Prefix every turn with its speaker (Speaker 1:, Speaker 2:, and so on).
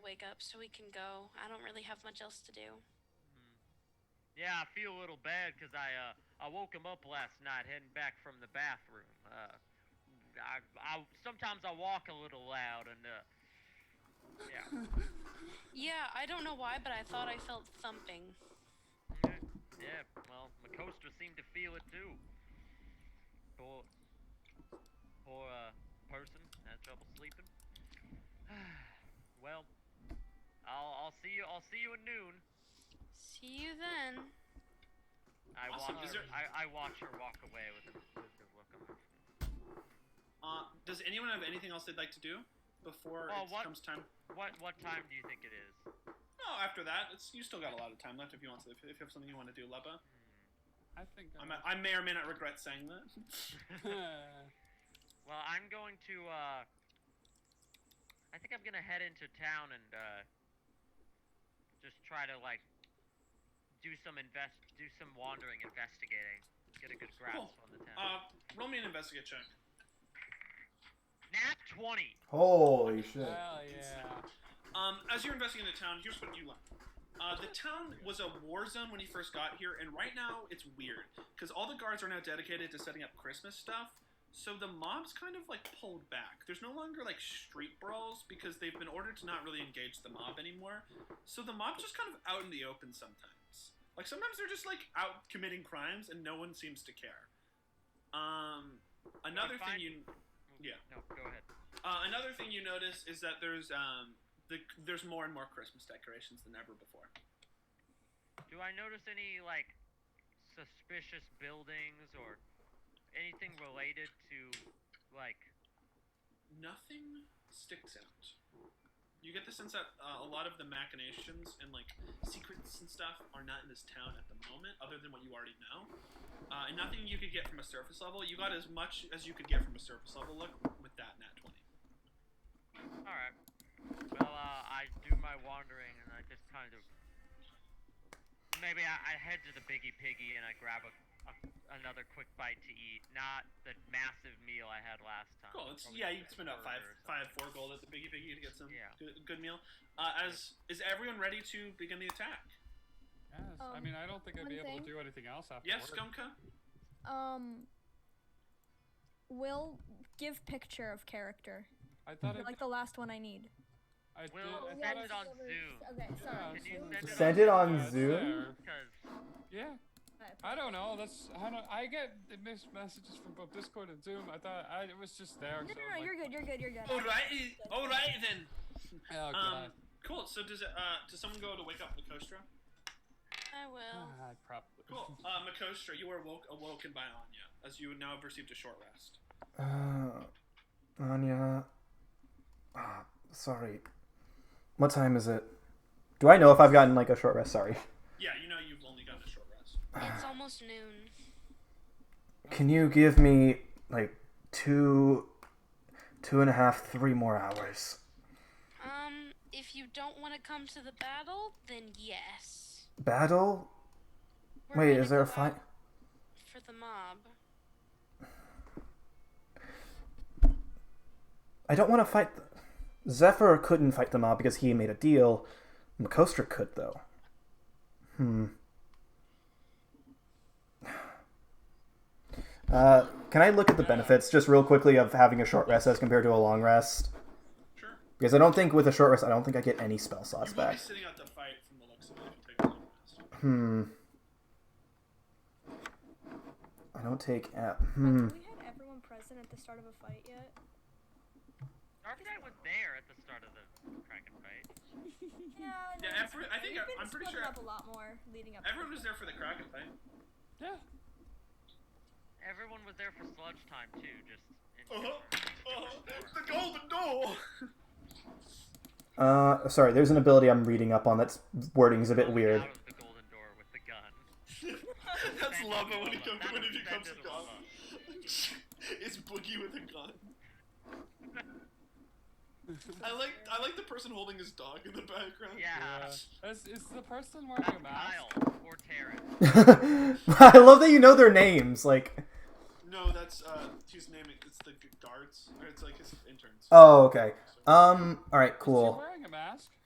Speaker 1: wake up so we can go. I don't really have much else to do.
Speaker 2: Yeah, I feel a little bad because I uh, I woke him up last night heading back from the bathroom. Uh, I, I sometimes I walk a little loud and uh, yeah,
Speaker 1: Yeah, I don't know why, but I thought I felt thumping.
Speaker 2: yeah, yeah. Well, Makostra seemed to feel it too. Poor, poor uh, person had trouble sleeping. well, I'll I'll see you I'll see you at noon.
Speaker 1: See you then.
Speaker 2: I
Speaker 3: Awesome,
Speaker 2: watch
Speaker 3: is
Speaker 2: her,
Speaker 3: there-
Speaker 2: I, I watch her walk away with a, with a look on her face.
Speaker 3: Uh, does anyone have anything else they'd like to do before
Speaker 2: Well,
Speaker 3: it
Speaker 2: what-
Speaker 3: comes time?
Speaker 2: What what time do you think it is?
Speaker 3: No, after that, it's, you still got a lot of time left if you want to. If, if you have something you want to do, Leppa.
Speaker 4: I think
Speaker 3: I'm, I may or may not regret saying that.
Speaker 4: I'm
Speaker 2: Well, I'm going to. Uh, I think I'm gonna head into town and uh, just try to like do some invest, do some wandering, investigating, get a good grasp
Speaker 3: Cool.
Speaker 2: on the town.
Speaker 3: Uh, roll me an investigate check.
Speaker 2: Nat twenty.
Speaker 5: Holy shit.
Speaker 4: Hell yeah.
Speaker 3: Um, as you're investigating the town, here's what you learn. Uh, the town was a war zone when you first got here, and right now it's weird because all the guards are now dedicated to setting up Christmas stuff. So the mob's kind of like pulled back. There's no longer like street brawls because they've been ordered to not really engage the mob anymore. So the mob's just kind of out in the open sometimes. Like sometimes they're just like out committing crimes and no one seems to care. Um, another thing
Speaker 2: find-
Speaker 3: you Yeah.
Speaker 2: No, go ahead.
Speaker 3: uh, another thing you notice is that there's um, the, there's more and more Christmas decorations than ever before.
Speaker 2: Do I notice any like suspicious buildings or anything related to like?
Speaker 3: Nothing sticks out. You get the sense that uh, a lot of the machinations and like secrets and stuff are not in this town at the moment, other than what you already know. Uh, and nothing you could get from a surface level. You got as much as you could get from a surface level look with that nat twenty.
Speaker 2: Oh, All right. Well, uh, I do my wandering and I just kind of maybe I, I head to the Biggie Piggy and I grab a, a another quick bite to eat, not the massive meal I had last time.
Speaker 3: Cool. It's,
Speaker 2: Probably
Speaker 3: yeah,
Speaker 2: just
Speaker 3: you can
Speaker 2: a
Speaker 3: spend
Speaker 2: burger
Speaker 3: about five,
Speaker 2: or something.
Speaker 3: five, four gold at the biggie biggie to get some
Speaker 2: Yeah.
Speaker 3: good, good meal. Uh, as is everyone ready to begin the attack?
Speaker 4: Yes. I
Speaker 6: Um,
Speaker 4: mean, I don't think I'd
Speaker 6: one
Speaker 4: be able
Speaker 6: thing?
Speaker 4: to do anything else after
Speaker 3: Yes,
Speaker 4: work.
Speaker 3: Gumka.
Speaker 6: Um, will give picture of character,
Speaker 4: I thought I,
Speaker 6: like the last one I need. Oh,
Speaker 4: I did.
Speaker 2: Will,
Speaker 4: I
Speaker 2: send
Speaker 4: thought I,
Speaker 2: it on Zoom.
Speaker 6: Okay,
Speaker 4: Yeah,
Speaker 6: sorry.
Speaker 2: Can you
Speaker 6: Zoom.
Speaker 2: send it
Speaker 5: Send it on
Speaker 4: Yeah, it's
Speaker 5: Zoom?
Speaker 2: Because
Speaker 4: there. Yeah. I don't know. That's I don't. I get missed messages from both Discord and Zoom. I thought I, it was just there.
Speaker 6: No,
Speaker 4: so I'm
Speaker 6: no, no,
Speaker 4: like,
Speaker 6: you're good. You're good. You're good.
Speaker 3: All right, all right e- then.
Speaker 4: Oh god.
Speaker 3: Um, cool. So does it, uh, does someone go to wake up Makostra?
Speaker 1: I will.
Speaker 4: Ah, probably.
Speaker 3: Cool. Uh, Makostra, you were woke, awoken by Anya, as you now have received a short rest.
Speaker 5: Uh, Anya. Ah, sorry. What time is it? Do I know if I've gotten like a short rest? Sorry.
Speaker 3: Yeah, you know you've only gotten a short rest.
Speaker 1: It's almost noon.
Speaker 5: Can you give me like two, two and a half, three more hours?
Speaker 1: Um, if you don't want to come to the battle, then yes.
Speaker 5: Battle?
Speaker 1: We're
Speaker 5: Wait,
Speaker 1: gonna
Speaker 5: is there a
Speaker 1: go
Speaker 5: fight?
Speaker 1: out For the mob.
Speaker 5: I don't want to fight. The... Zephyr couldn't fight the mob because he made a deal. Makostra could though. Hmm. Uh, can I look at the benefits just real quickly of having a short rest as compared to a long rest?
Speaker 3: Sure.
Speaker 5: Because I don't think with a short rest, I don't think I get any spell slots
Speaker 3: You will be
Speaker 5: back.
Speaker 3: sitting out the fight from the looks of it. if you Take a long rest.
Speaker 5: Hmm. I don't take app. Hmm.
Speaker 6: we had everyone present at the start of a fight yet?
Speaker 2: Dark Knight was there at the start of the Kraken fight.
Speaker 6: Yeah.
Speaker 3: Yeah,
Speaker 6: no,
Speaker 3: every- I think
Speaker 6: we've
Speaker 3: I-
Speaker 6: been
Speaker 3: I'm pretty
Speaker 6: splitting
Speaker 3: sure-
Speaker 6: up a lot more leading up. to
Speaker 3: Everyone
Speaker 6: this.
Speaker 3: was there for the Kraken fight.
Speaker 4: Yeah.
Speaker 2: Everyone was there for sludge time too, just. In
Speaker 3: Uh-huh. The golden door.
Speaker 5: Uh, sorry. There's an ability I'm reading up on that's wording's a bit
Speaker 2: Coming
Speaker 5: weird.
Speaker 2: Out of the golden door with the gun.
Speaker 3: That's
Speaker 2: That's
Speaker 3: lava when he
Speaker 2: lava.
Speaker 3: comes
Speaker 2: That
Speaker 3: when
Speaker 2: is-
Speaker 3: he
Speaker 2: that
Speaker 3: comes
Speaker 2: is
Speaker 3: to God.
Speaker 2: lava.
Speaker 3: it's Boogie with a gun. I like I like the person holding his dog in the background.
Speaker 2: Yeah.
Speaker 4: Yeah. Is, is the person wearing
Speaker 2: That's
Speaker 4: a mask?
Speaker 2: Ah. Kyle or Terrence.
Speaker 5: I love that you know their names. Like,
Speaker 3: No, that's uh, his name. It's the guards, or it's like his interns.
Speaker 5: oh, okay. Um. All right.
Speaker 4: Is he
Speaker 5: Cool.
Speaker 4: wearing a mask?